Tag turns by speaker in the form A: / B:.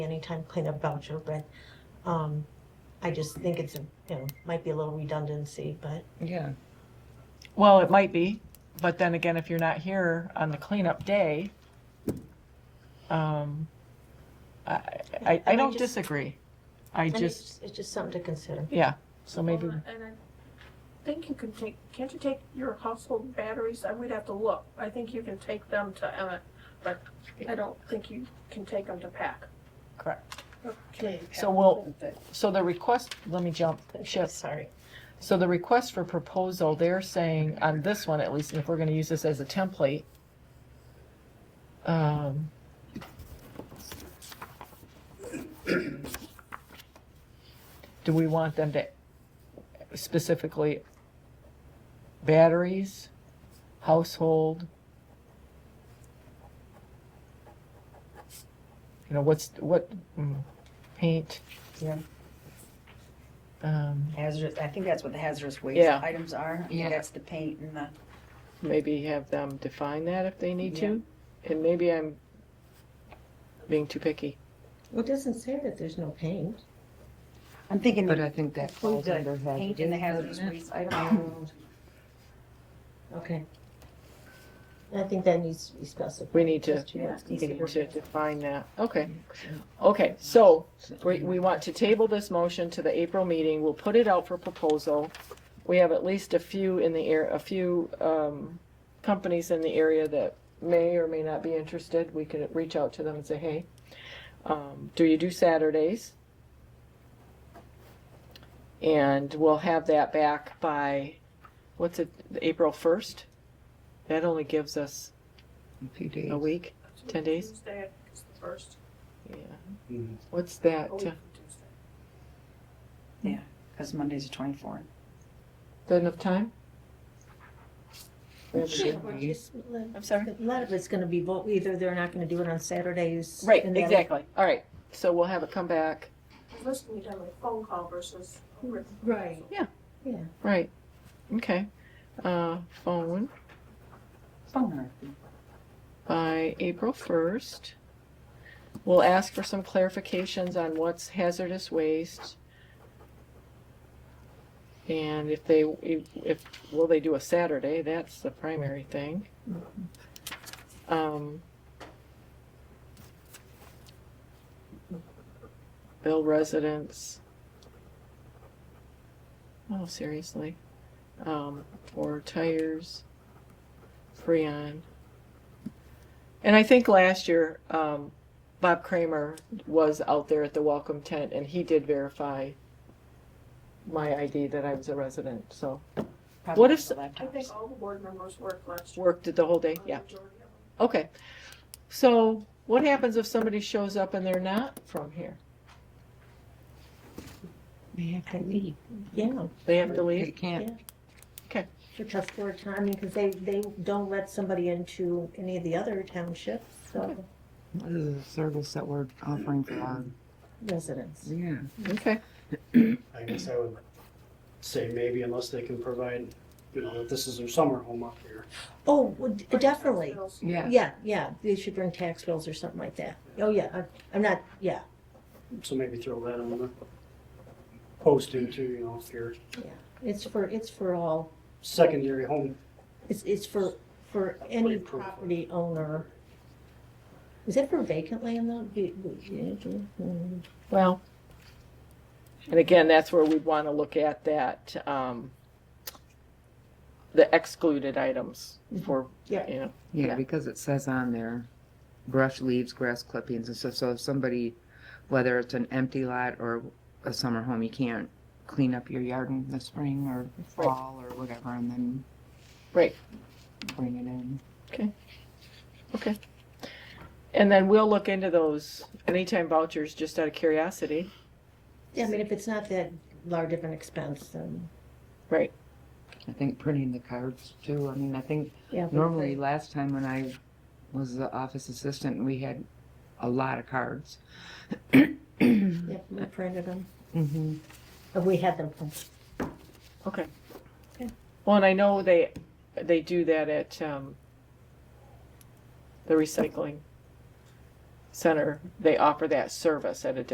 A: anytime cleanup voucher, but, um, I just think it's, a you know, might be a little redundancy, but,
B: Yeah.
C: Well, it might be, but then again, if you're not here on the cleanup day, um, I, I,
A: I
C: I
A: might
C: don't
A: just-
C: disagree. I
A: and it's,
C: just,
A: just- it's just something to consider.
C: yeah, so maybe,
D: Well, And I think you can take, can't you take your household batteries, I would have to look, I think you can take them to Emmett, but I don't think you can take them to PAC.
C: correct.
D: or community PAC,
C: So we'll-
D: isn't it?
C: So the request, let me jump ship.
A: Sorry.
C: So the request for proposal, they're saying on this one at least, and if we're gonna use this as a template, um, do we want them to specifically batteries, household? You know, what's, what, mm, paint?
E: Yeah.
C: Um,
E: Hazardous, I think that's what the hazardous waste
C: Yeah.
E: items are. I think
C: Yeah.
E: That's the paint and the,
C: maybe have them define that if they need to. And maybe I'm being too picky.
A: Well, it doesn't say that there's no paint.
E: I'm thinking
B: But I think that
E: include
B: falls under
E: the paint and the hazardous
B: hazardous. Oh, doesn't
E: waste
B: it?
E: item.
A: Okay. I think that needs to be specified.
C: We need to-
A: Just what's
C: We need to
A: considered.
C: define that. Okay. Okay, so we, we want to table this motion to the April meeting. We'll put it out for proposal. We have at least a few in the air, a few, um, companies in the area that may or may not be interested. We could reach out to them and say, hey, um, do you do Saturdays? And we'll have that back by, what's it, April first? That only gives us a week, ten days?
D: Tuesday is the first,
C: yeah.
F: Mhm.
C: What's that?
D: a week
C: uh,
D: from Tuesday.
E: Because Monday's the twenty-fourth.
C: that enough time? We have to
A: Sure,
C: do-
A: well, just let-
C: I'm sorry?
A: A lot of it's gonna be, vote. either they're not gonna do it on Saturdays.
C: Right,
A: and the other-
C: exactly. All right, so we'll have it come back.
D: This can be done by phone call versus a written.
A: Right.
C: Yeah.
A: Yeah.
C: Right, okay. Uh, phone
E: Phone
C: by April first. We'll ask for some clarifications on what's hazardous waste. And if they, if, if- will they do a Saturday? That's the primary thing. Um, Bill residents. Oh, seriously. Um, or tires, Freon. And I think last year, um, Bob Kramer was out there at the welcome tent and he did verify my ID that I was a resident, so.
E: or.
C: What if-
D: I think all the board members worked last year.
C: Worked it the whole day,
D: or the
C: yeah,
D: majority of them.
C: okay. So what happens if somebody shows up and they're not from here?
B: They have to leave.
A: Yeah,
C: They have to
B: They
C: leave?
B: can't.
A: for tough for time, I mean, cause they, they don't let somebody into any of the other townships, so
B: This is a service that we're offering for our,
A: residents.
B: yeah.
C: Okay,
F: I guess I would say maybe unless they can provide, you know, that this is their summer home up here.
A: Oh, well, d- definitely.
D: Hospitals.
B: Yeah.
A: Yeah, yeah, they should bring tax bills or something like that. Oh, yeah, I'm- I'm not, yeah,
F: So maybe throw that on the posting too, you know, if you're
A: it's for, it's for all,
F: secondary home.
A: it's, it's for, for any property owner. Is it for vacant land though? Be- be- mm,
C: well, and again, that's where we'd wanna look at that, um, the excluded items for, you
A: Yeah.
C: know, Yeah.
B: Yeah, because it says on there, brush, leaves, grass clippings and stuff, so if somebody, whether it's an empty lot or a summer home, you can't clean up your yard in the spring or
C: Right.
B: fall or whatever and then.
C: Right.
B: Bring it in.
C: and then we'll look into those anytime vouchers, just out of curiosity.
A: Yeah, I mean, if it's not that large of an expense, then.
B: I think printing the cards too, I mean, I think
A: yeah, but-
B: Normally, last time when I was the office assistant, we had a lot of cards. mm-hmm.
A: Yeah, we printed them, Uh, we had them printed.
C: Okay.
A: Okay.
C: Well, and I know they, they do that at, um, the recycling center, they offer that service at a discount.